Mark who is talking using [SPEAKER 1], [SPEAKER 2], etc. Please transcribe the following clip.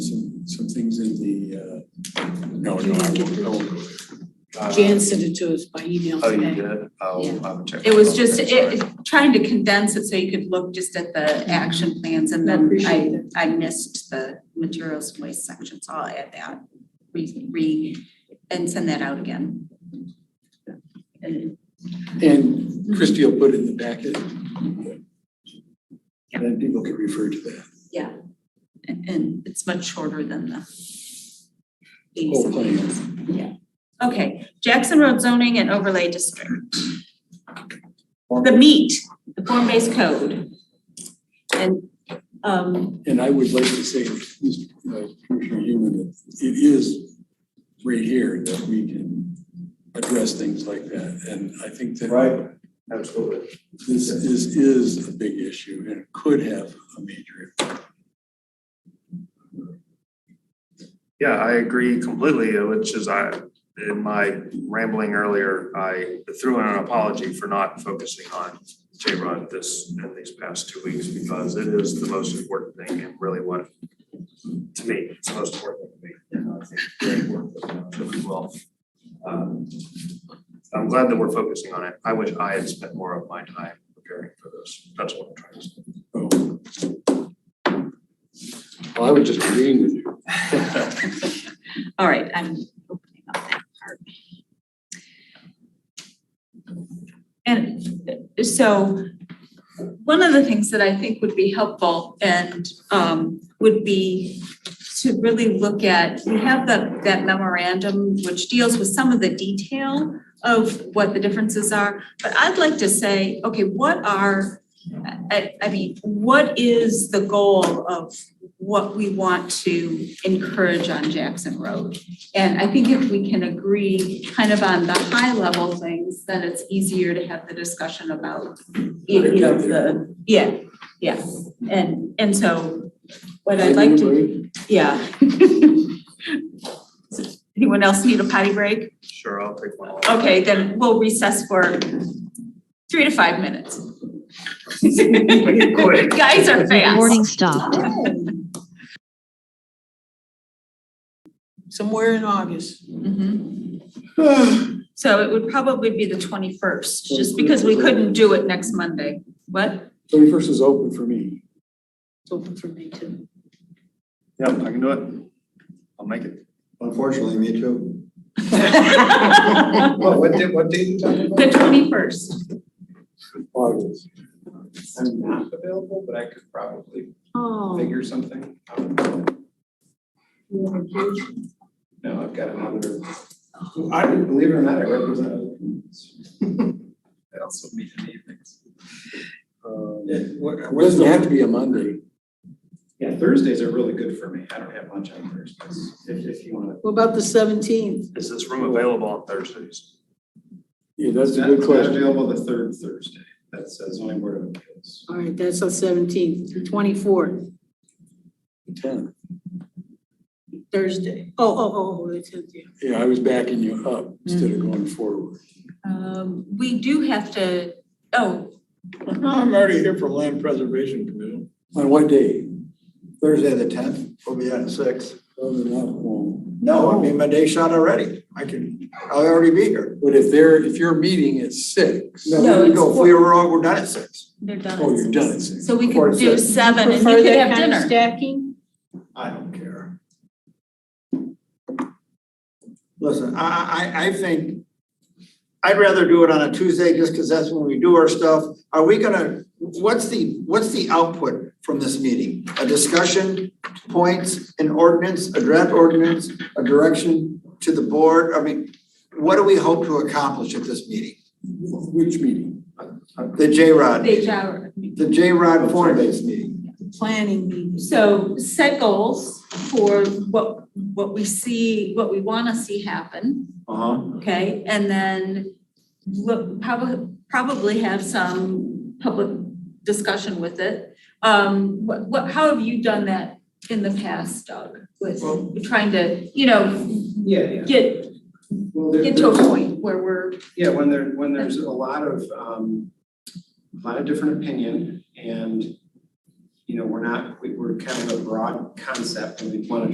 [SPEAKER 1] uh,
[SPEAKER 2] No, no, I won't, I won't go there. Uh,
[SPEAKER 3] Jan sent it to us by email
[SPEAKER 2] Oh, you
[SPEAKER 3] today.
[SPEAKER 2] did? I'll, I'll check.
[SPEAKER 4] It was just,
[SPEAKER 2] Okay, sorry.
[SPEAKER 4] it, it- trying to condense it so you could look just at the action plans and
[SPEAKER 3] No,
[SPEAKER 4] then
[SPEAKER 3] Mm-hmm. appreciate
[SPEAKER 4] I,
[SPEAKER 3] it.
[SPEAKER 4] I missed the materials and waste section, so I'll add that. Re, re, and send that out again. And
[SPEAKER 1] And Christie will put it in the packet. And then people can refer to that
[SPEAKER 4] and it's much shorter than the.
[SPEAKER 1] whole plan.
[SPEAKER 4] Okay, Jackson Road zoning and overlay district. The meat, the form-based code. And, um,
[SPEAKER 1] And I would like to say, uh, Commissioner Human, that it is right here that we can address things like that. And I think that
[SPEAKER 2] Right, absolutely.
[SPEAKER 1] this is, is a big issue and it could have a major. impact.
[SPEAKER 2] Yeah, I agree completely, uh, which is I, in my rambling earlier, I threw in an apology for not focusing on J-Rod this, in these past two weeks, because it is the most important thing and really what, to me, it's the most important thing to me. and I think great work that we will. Um, I'm glad that we're focusing on it. I wish I had spent more of my time preparing for this. That's what I'm trying to say.
[SPEAKER 1] Oh. Well, I was just agreeing with you.
[SPEAKER 4] All right, I'm opening up that part. And uh, so one of the things that I think would be helpful and um would be to really look at, we have the that memorandum which deals with some of the detail of what the differences are, but I'd like to say, okay, what are I I mean, what is the goal of what we want to encourage on Jackson Road? And I think if we can agree kind of on the high level things, then it's easier to have the discussion about, you you know, the, yeah, yeah. And and so what I'd like to, yeah. Anyone else need a potty break?
[SPEAKER 2] Sure, I'll take one.
[SPEAKER 4] Okay, then we'll recess for three to five minutes.
[SPEAKER 2] Quick.
[SPEAKER 4] Guys are fast.
[SPEAKER 5] Recording stopped.
[SPEAKER 3] Somewhere in August.
[SPEAKER 4] Mhm. So it would probably be the twenty-first, just because we couldn't do it next Monday. What?
[SPEAKER 1] Thirty-first is open for me.
[SPEAKER 3] It's open for me too.
[SPEAKER 2] Yep, I can do it. I'll make it.
[SPEAKER 6] Unfortunately, me too.
[SPEAKER 4] The
[SPEAKER 6] What, what did, what did you talk about?
[SPEAKER 4] twenty-first.
[SPEAKER 1] August.
[SPEAKER 6] I'm not available, but I could probably
[SPEAKER 3] Oh.
[SPEAKER 6] figure something out. No, I've got another, I, believe it or not, I represent other communities. I also meet in the evenings.
[SPEAKER 1] Uh,
[SPEAKER 6] Yeah, what,
[SPEAKER 1] It
[SPEAKER 6] what's
[SPEAKER 1] doesn't have to
[SPEAKER 6] the,
[SPEAKER 1] be a Monday.
[SPEAKER 6] yeah, Thursdays are really good for me. I don't have lunch on Thursdays, if, if you wanna.
[SPEAKER 3] What about the seventeenth?
[SPEAKER 2] Is this room available on Thursdays?
[SPEAKER 1] Yeah, that's a
[SPEAKER 6] Not-
[SPEAKER 1] good
[SPEAKER 6] not
[SPEAKER 1] question.
[SPEAKER 6] Available the third Thursday, that's the zoning board of appeals.
[SPEAKER 3] All right, that's the seventeenth, twenty-fourth,
[SPEAKER 1] Ten.
[SPEAKER 3] Thursday. Oh, oh, oh, the tenth, yeah.
[SPEAKER 1] Yeah, I was backing you up instead of going forward.
[SPEAKER 4] Um, we do have to, oh,
[SPEAKER 1] I'm already here from Land Preservation Committee. On what day?
[SPEAKER 7] Thursday, the tenth, we'll be at six.
[SPEAKER 1] Other than Oh, that, well,
[SPEAKER 7] No, I mean, my day's shot already. I can, I'll already be here.
[SPEAKER 1] But if they're, if your meeting is six.
[SPEAKER 4] No,
[SPEAKER 7] There you
[SPEAKER 4] it's
[SPEAKER 7] go. If we were all, we're done at six.
[SPEAKER 4] they're done.
[SPEAKER 1] Oh, you're done at six.
[SPEAKER 4] So we
[SPEAKER 7] Or
[SPEAKER 4] could do
[SPEAKER 7] six.
[SPEAKER 4] seven and
[SPEAKER 3] Prefer
[SPEAKER 4] you could
[SPEAKER 3] that
[SPEAKER 4] have
[SPEAKER 3] kind of
[SPEAKER 4] dinner.
[SPEAKER 3] Stacking?
[SPEAKER 7] I don't care. Listen, I, I, I think I'd rather do it on a Tuesday just because that's when we do our stuff. Are we gonna, what's the, what's the output from this meeting? A discussion, points, an ordinance, a draft ordinance, a direction to the board? I mean, what do we hope to accomplish at this meeting?
[SPEAKER 1] Which meeting?
[SPEAKER 7] The J-Rod,
[SPEAKER 4] They shower.
[SPEAKER 7] the J-Rod form-based meeting.
[SPEAKER 3] Planning meetings.
[SPEAKER 4] So set goals for what, what we see, what we wanna see happen.
[SPEAKER 7] Uh-huh.
[SPEAKER 4] Okay, and then look, probably, probably have some public discussion with it. Um, what, what, how have you done that in the past, Doug? With
[SPEAKER 6] Well-
[SPEAKER 4] trying to, you know,
[SPEAKER 6] Yeah, yeah.
[SPEAKER 4] get,
[SPEAKER 6] Well, there-
[SPEAKER 4] get to a
[SPEAKER 6] there's-
[SPEAKER 4] point where we're,
[SPEAKER 6] Yeah, when there, when there's a lot of, um, a lot of different opinion and, you know, we're not, we- we're kind of a broad concept and we want to